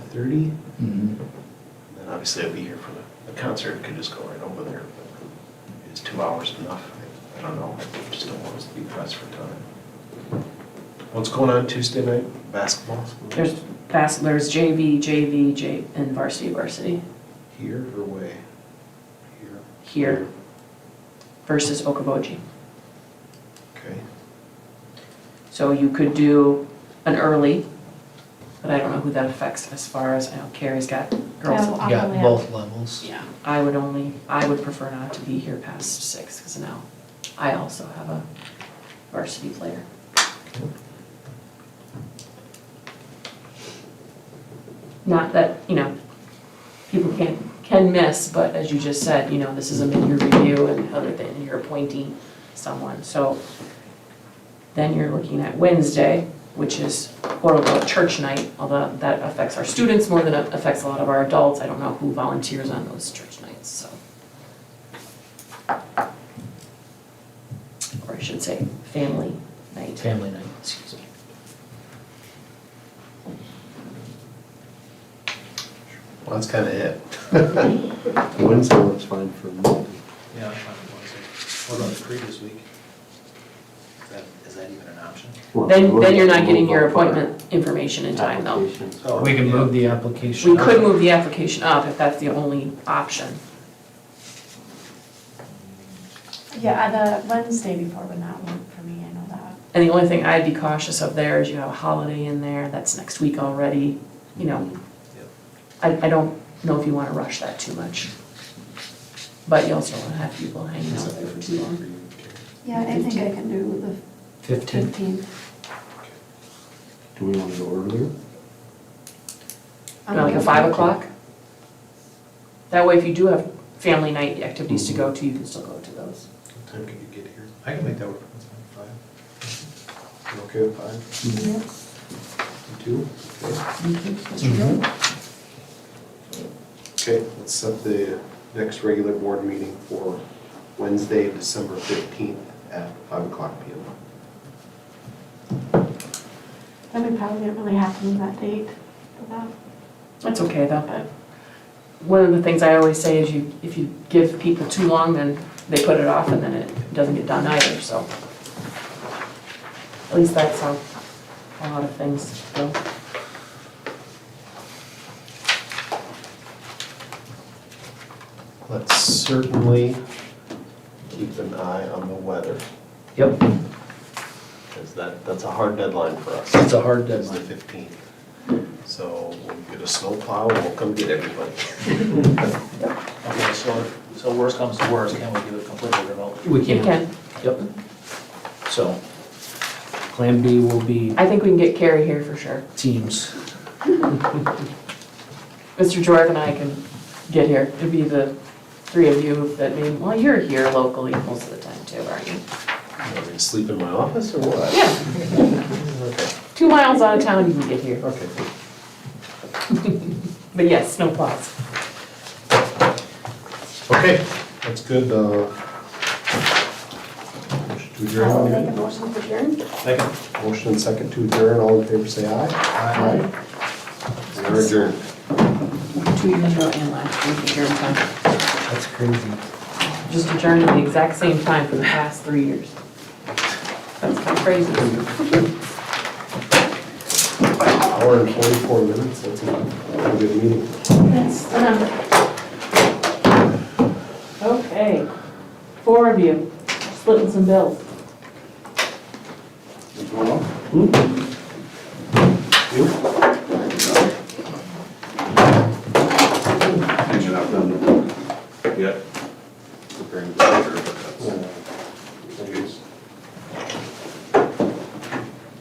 thirty. Mhm. Mm-hmm. Then obviously I'll be here for the, the concert, could just go right over there, but is two hours enough? I- I don't know, I just don't want us to be pressed for time. What's going on Tuesday night, basketball? There's bas, there's JV, JV, J, and varsity, varsity Here or way? Here. here versus Okoboji. Okay. So you could do an early, but I don't know who that affects as far as, I know Carrie's got girls. I'll Yeah, probably have- both levels. Yeah. I would only, I would prefer not to be here past six, because now I also have a varsity player. Not that, you know, people can, can miss, but as you just said, you know, this is a mid-year review and other than you're appointing someone, so then you're looking at Wednesday, which is quote-unquote church night, although that affects our students more than it affects a lot of our adults. I don't know who volunteers on those church nights, so. Or I should say, family night. Family night, excuse me. Well, that's kinda it. Wednesday looks fine for me. Yeah, I'm fine with Wednesday. What about the previous week? Is that, is that even an option? Then, then you're not getting your appointment information in time though. Applications. Oh, We can yeah. move the application. We could up. move the application up if that's the only option. Yeah, the Wednesday before would not work for me, I know that. And the only thing I'd be cautious of there is you have a holiday in there, that's next week already, you know. Yep. I, I don't know if you wanna rush that too much. But you also wanna have people hanging out there for too long. Yeah, I think I can do the Fifteen, fifteenth. Do we want to go earlier? You know, Like a five o'clock? That way if you do have family night activities to go to, you can still go to those. What time can you get here? I can make that work, that's fine, five. You okay with five? You Two? Okay. Okay, let's set the next regular board meeting for Wednesday, December fifteenth at five o'clock P M. Then we probably didn't really have to move that date for that. That's okay though. One of the things I always say is you, if you give people too long, then they put it off and then it doesn't get done either, so. At least that's how a lot of things go. Let's certainly keep an eye on the weather, yep, because that, that's a hard deadline for us. it's a hard It's the deadline. fifteenth. So when we get a snowplow, we'll come get everybody. Okay, so, so worst comes to worst, can we do it completely remote? We You can, can, yep. So, Plan B will be I think we can get Carrie here for sure. teams. Mr. Jorg and I can get here. It'd be the three of you that mean, well, you're here locally most of the time too, aren't you? Am I gonna sleep in my office or what? Yeah, Okay, two miles out of town, you can get here. okay. But yes, no plots. Okay, that's good, uh. motion to adjourn. I'll make a motion to adjourn. Second. Motion and second to adjourn, all in favor say aye. Aye. We are adjourned. Two years ago and last year, here in town. That's crazy. just adjourned at the exact same time for the past three years. That's kind of crazy. Hour and forty-four minutes, that's a good meeting. That's the number. Okay, four of you, splitting some bills. Hanging out down the, yeah. Preparing the order, but that's. I guess.